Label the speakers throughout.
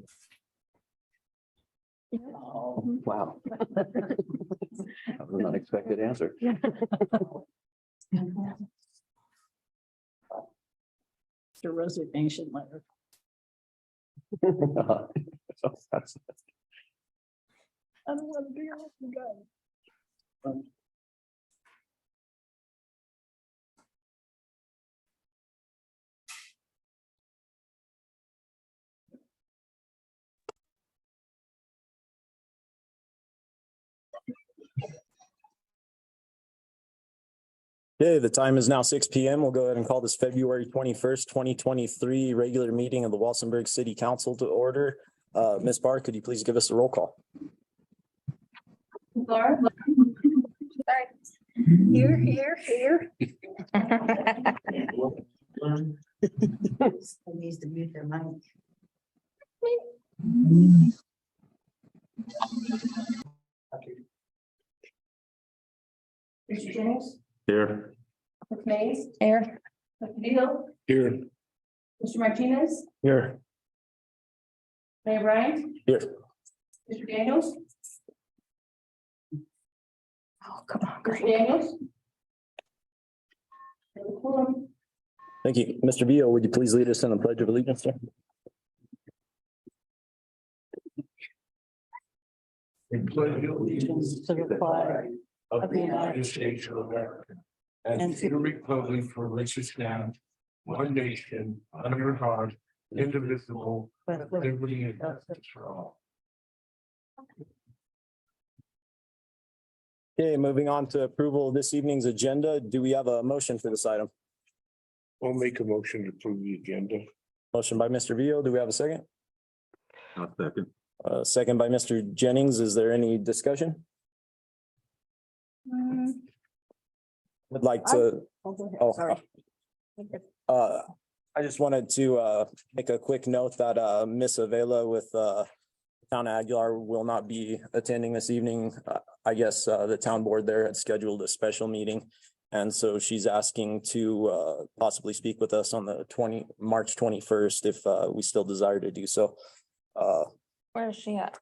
Speaker 1: Oh,
Speaker 2: Wow. That was an unexpected answer.
Speaker 1: Your resignation letter.
Speaker 2: So that's-
Speaker 1: I don't want to be on the gun.
Speaker 3: Okay, the time is now six P M. We'll go ahead and call this February twenty-first, twenty twenty-three regular meeting of the Walsenburg City Council to order. Uh, Ms. Barr, could you please give us a roll call?
Speaker 4: Laura? Sorry. Here, here, here.
Speaker 1: Needs to mute their mic.
Speaker 4: Mr. Jennings,
Speaker 5: Here.
Speaker 4: Ms. Mays,
Speaker 6: Air.
Speaker 4: Mr. Beal,
Speaker 5: Here.
Speaker 4: Mr. Martinez,
Speaker 5: Here.
Speaker 4: Mayor Ryan.
Speaker 3: Here.
Speaker 4: Mr. Daniels,
Speaker 6: Oh, come on,
Speaker 4: Mr.
Speaker 6: great.
Speaker 4: Daniels. And the quorum.
Speaker 3: Thank you. Mr. Beal, would you please lead us in a pledge of allegiance, sir?
Speaker 5: Pledge allegiance to the flag of the United States of America. And to the republic for which it stands, one nation, under God, indivisible, with liberty and justice for all.
Speaker 3: Okay, moving on to approval of this evening's agenda. Do we have a motion for this item?
Speaker 5: I'll make a motion to approve the agenda.
Speaker 3: Motion by Mr. Beal. Do we have a second?
Speaker 5: i second.
Speaker 3: Uh, second by Mr. Jennings. Is there any discussion?
Speaker 4: mm,
Speaker 3: Would like to. Oh,
Speaker 1: Sorry.
Speaker 3: Uh, I just wanted to, uh, make a quick note that, uh, Ms. Avila with, uh, Town of Aguilar will not be attending this evening. Uh, I guess, uh, the town board there had scheduled a special meeting. And so she's asking to, uh, possibly speak with us on the twenty, March twenty-first, if, uh, we still desire to do so. Uh,
Speaker 6: Where is she at?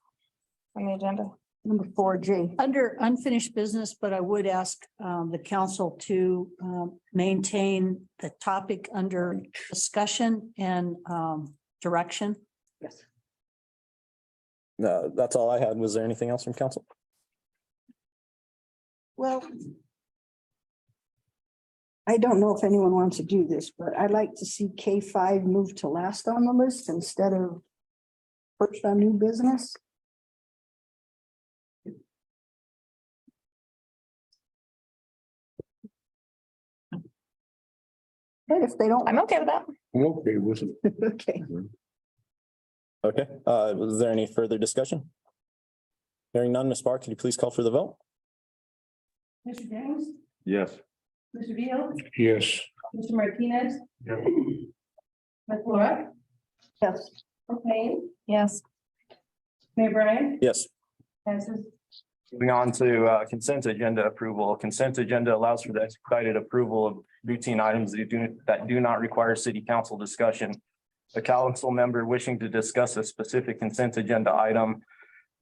Speaker 6: On the agenda?
Speaker 1: Number four, G. Under unfinished business, but I would ask um, the council to um, maintain the topic under discussion and um, direction. Yes.
Speaker 3: no, that's all I had. Was there anything else from council?
Speaker 7: Well. I don't know if anyone wants to do this, but I'd like to see K five move to last on the list instead of first on new business. But if they don't,
Speaker 6: I'm okay with that.
Speaker 5: Okay, with it.
Speaker 7: okay,
Speaker 3: Okay, uh, was there any further discussion? Hearing none, Ms. Barr, could you please call for the vote?
Speaker 4: Mr. Jennings,
Speaker 5: Yes.
Speaker 4: Mr. Beal,
Speaker 5: Yes.
Speaker 4: Mr. Martinez,
Speaker 5: Yeah.
Speaker 4: Ms. Laura,
Speaker 7: yes.
Speaker 4: okay,
Speaker 6: Yes.
Speaker 4: Mayor Brian,
Speaker 3: Yes.
Speaker 4: passes
Speaker 3: Moving on to uh, consent agenda approval. Consent agenda allows for the expedited approval of routine items that do, that do not require city council discussion. A council member wishing to discuss a specific consent agenda item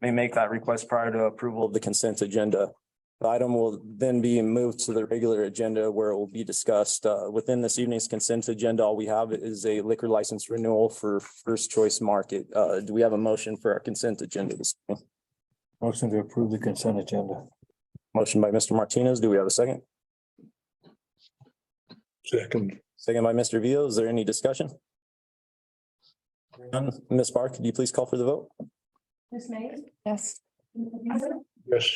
Speaker 3: may make that request prior to approval of the consent agenda. The item will then be moved to the regular agenda where it will be discussed. Uh, Within this evening's consent agenda, all we have is a liquor license renewal for First Choice Market. Uh, Do we have a motion for our consent agenda this evening?
Speaker 8: Motion to approve the consent agenda.
Speaker 3: Motion by Mr. Martinez. Do we have a second?
Speaker 5: Second.
Speaker 3: Second by Mr. Vio. Is there any discussion? None. Ms. Barr, could you please call for the vote?
Speaker 4: Ms. Mays,
Speaker 6: Yes.
Speaker 4: Mr. Beal,
Speaker 5: Yes.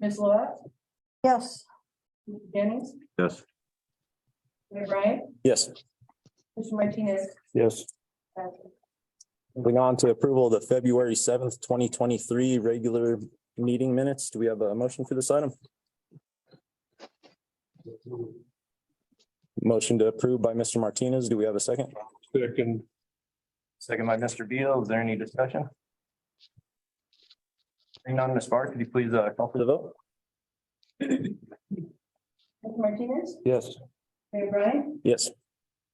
Speaker 4: Ms. Laura,
Speaker 7: Yes,
Speaker 4: Mr. Jennings,
Speaker 5: Yes.
Speaker 4: Mayor Brian,
Speaker 3: Yes.
Speaker 4: Mr. Martinez,
Speaker 5: Yes.
Speaker 4: passes.
Speaker 3: Moving on to approval of the February seventh, twenty twenty-three regular meeting minutes. Do we have a motion for this item? Motion to approve by Mr. Martinez. Do we have a second?
Speaker 5: Second.
Speaker 3: Second by Mr. Vio. Is there any discussion? Hearing none, Ms. Barr, could you please uh, call for the vote?
Speaker 4: Mr. Martinez,
Speaker 3: Yes.
Speaker 4: Mayor Brian,
Speaker 3: Yes.